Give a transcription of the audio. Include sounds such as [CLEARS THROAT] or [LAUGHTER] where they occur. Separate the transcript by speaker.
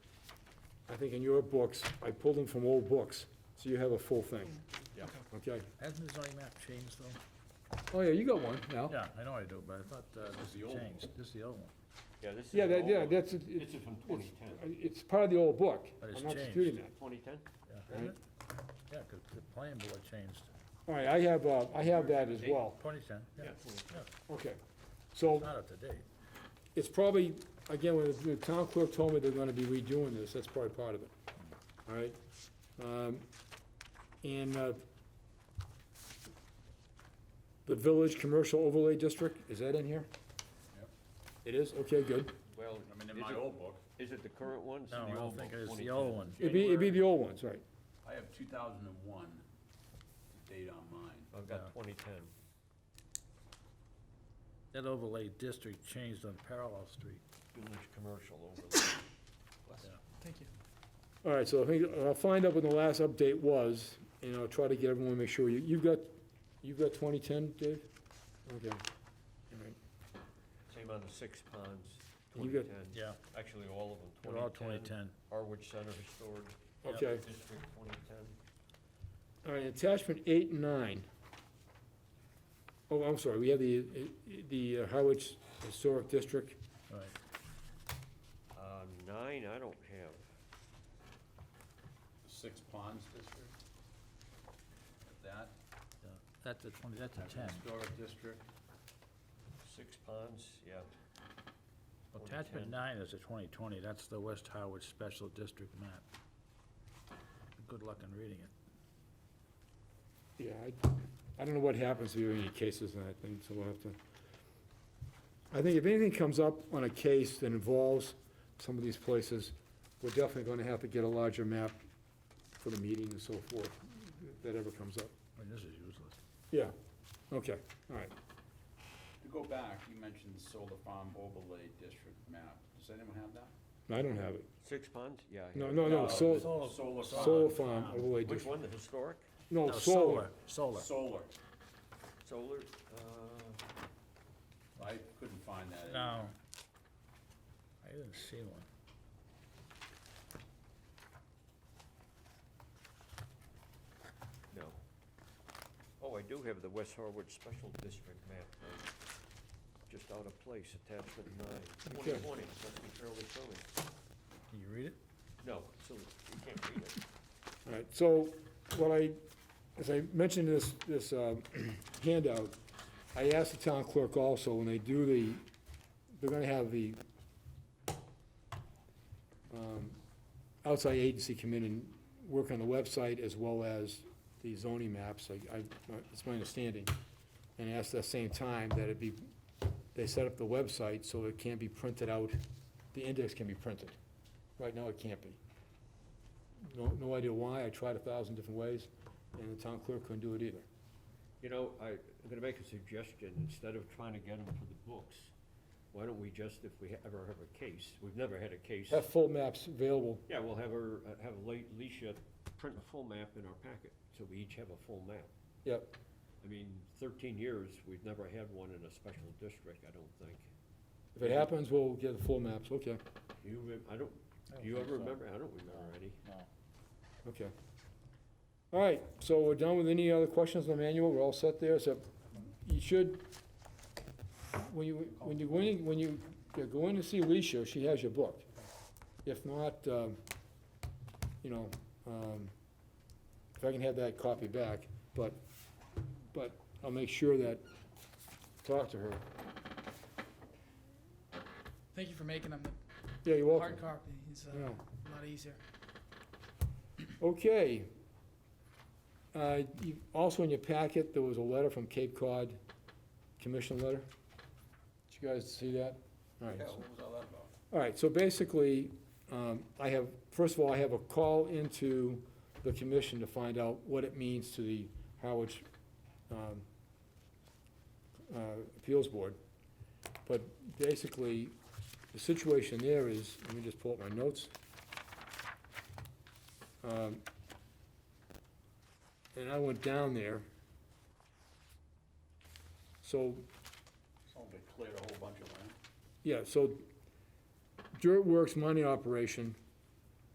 Speaker 1: I think in your books, I pulled them from old books, so you have a full thing.
Speaker 2: Yeah.
Speaker 1: Okay.
Speaker 3: Hasn't the zoning map changed though?
Speaker 1: Oh, yeah, you got one now.
Speaker 3: Yeah, I know I do, but I thought uh, this
Speaker 2: the old one.
Speaker 3: changed, this is the old one,
Speaker 4: Yeah, this is.
Speaker 1: Yeah,
Speaker 4: an
Speaker 1: that,
Speaker 4: old
Speaker 1: yeah,
Speaker 4: one.
Speaker 1: that's, it-
Speaker 4: This
Speaker 1: it's,
Speaker 4: is from 2010.
Speaker 1: it's part of the old book.
Speaker 3: But it's
Speaker 1: I'm not
Speaker 3: changed.
Speaker 1: disputing that.
Speaker 4: 2010?
Speaker 3: yeah, isn't it? Yeah, 'cause the plan board changed,
Speaker 1: All right, I have, uh, I have that as well.
Speaker 3: twenty-ten, yeah,
Speaker 1: Okay. So
Speaker 3: not up to date.
Speaker 1: it's probably, again, when the town clerk told me they're gonna be redoing this, that's probably part of it. All right? Um, And, uh, the Village Commercial Overlay District, is that in here?
Speaker 3: Yep.
Speaker 1: It is? Okay, good.
Speaker 4: Well,
Speaker 2: I mean, in
Speaker 4: is
Speaker 2: my
Speaker 4: it-
Speaker 2: old book,
Speaker 4: Is it the current one? It's
Speaker 3: No, I
Speaker 4: the
Speaker 3: don't
Speaker 4: old
Speaker 3: think
Speaker 4: book,
Speaker 3: it's the
Speaker 4: 2010.
Speaker 3: old one.
Speaker 1: It'd be, it'd be the old ones, right?
Speaker 2: I have two thousand and one, date on mine.
Speaker 4: I've
Speaker 3: Yeah.
Speaker 4: got 2010.
Speaker 3: That overlay district changed on Parallel Street.
Speaker 4: Village commercial overlay.
Speaker 5: Thank you.
Speaker 1: All right, so I think, I'll find out when the last update was, and I'll try to get everyone, make sure, you, you've got, you've got twenty-ten, Dave? Okay. All right.
Speaker 4: Same on the six ponds,
Speaker 1: You got-
Speaker 4: 2010.
Speaker 3: Yeah.
Speaker 4: Actually, all of them,
Speaker 3: They're all
Speaker 4: 2010.
Speaker 3: 2010.
Speaker 4: Harwich Center Historic
Speaker 3: Yep.
Speaker 1: Okay,
Speaker 4: District, 2010.
Speaker 1: all right, attachment eight and nine. Oh, I'm sorry, we have the, the Howard Historic District.
Speaker 3: Right.
Speaker 4: Uh, Nine, I don't have.
Speaker 2: The Six Ponds District. That,
Speaker 3: yeah. That's a twenty, that's a ten.
Speaker 2: Historic District.
Speaker 4: Six ponds, yeah.
Speaker 3: Attachment
Speaker 4: 2010.
Speaker 3: nine is a twenty-twenty, that's the West Howard Special District map. Good luck in reading it.
Speaker 1: Yeah, I, I don't know what happens if you have any cases on that thing, so we'll have to. I think if anything comes up on a case that involves some of these places, we're definitely gonna have to get a larger map for the meeting and so forth, if that ever comes up.
Speaker 3: I mean, this is useless.
Speaker 1: Yeah, okay, all right.
Speaker 2: To go back, you mentioned the solar farm overlay district map. Does anyone have that?
Speaker 1: I don't have it.
Speaker 4: Six ponds, yeah. I
Speaker 1: No,
Speaker 4: have it.
Speaker 1: no, no,
Speaker 2: the
Speaker 1: sol-
Speaker 3: solar-
Speaker 2: Solar farm.
Speaker 1: solar farm
Speaker 2: um,
Speaker 1: overlay
Speaker 4: Which
Speaker 1: district.
Speaker 4: one, the historic?
Speaker 1: No,
Speaker 3: No,
Speaker 1: solar.
Speaker 3: Oh, Solar.
Speaker 2: Solar.
Speaker 4: Solar, uh,
Speaker 2: I couldn't find that. in
Speaker 3: No. I didn't see one.
Speaker 4: no. Oh, I do have the West Harwich Special District map, uh, just out of place, attachment nine.
Speaker 1: Okay.
Speaker 4: 2020, must be fairly current.
Speaker 3: Can you read it?
Speaker 4: No, so you can't read it.
Speaker 1: All right, so what I, as I mentioned in this, this um, [CLEARS THROAT] handout, I asked the town clerk also, when they do the, they're gonna have the um, outside agency come in and work on the website as well as the zoning maps, I, I, it's my understanding. And asked at the same time that it be, they set up the website so it can be printed out, the index can be printed. Right now, it can't be. No, no idea why, I tried a thousand different ways, and the town clerk couldn't do it either.
Speaker 4: You know, I, I'm gonna make a suggestion, instead of trying to get them for the books, why don't we just, if we ever have a case, we've never had a case.
Speaker 1: Have full maps available,
Speaker 4: Yeah, we'll have her, uh, have Le- Leisha print a full map in our packet, so we each have a full map.
Speaker 1: yep,
Speaker 4: I mean, thirteen years, we've never had one in a special district, I don't think.
Speaker 1: if it happens, we'll get the full maps, okay,
Speaker 4: Do you, remem- I don't,
Speaker 3: I don't
Speaker 4: do you
Speaker 3: think
Speaker 4: ever
Speaker 3: so.
Speaker 4: remember? I don't remember any.
Speaker 3: No.
Speaker 1: okay. All right, so we're done with any other questions on the manual, we're all set there, so you should, when you, when you, when you, when you go in to see Alicia, she has your book. If not, um, you know, um, if I can have that copy back, but, but I'll make sure that, talk to her.
Speaker 5: Thank you for making them. The
Speaker 1: Yeah, you're welcome.
Speaker 5: Hard copy is uh,
Speaker 1: Yeah.
Speaker 5: a lot easier.
Speaker 1: Okay. Uh, you- Also in your packet, there was a letter from Cape Cod, commission letter. Did you guys see that? All right.
Speaker 2: Yeah,
Speaker 1: so-
Speaker 2: what was all that about?
Speaker 1: All right, so basically, um, I have, first of all, I have a call into the commission to find out what it means to the Howard um, uh, Appeals Board. But basically, the situation there is, let me just pull up my notes. Um, And I went down there. So
Speaker 2: Someone cleared a whole bunch of land.
Speaker 1: yeah, so Dirt Works mining operation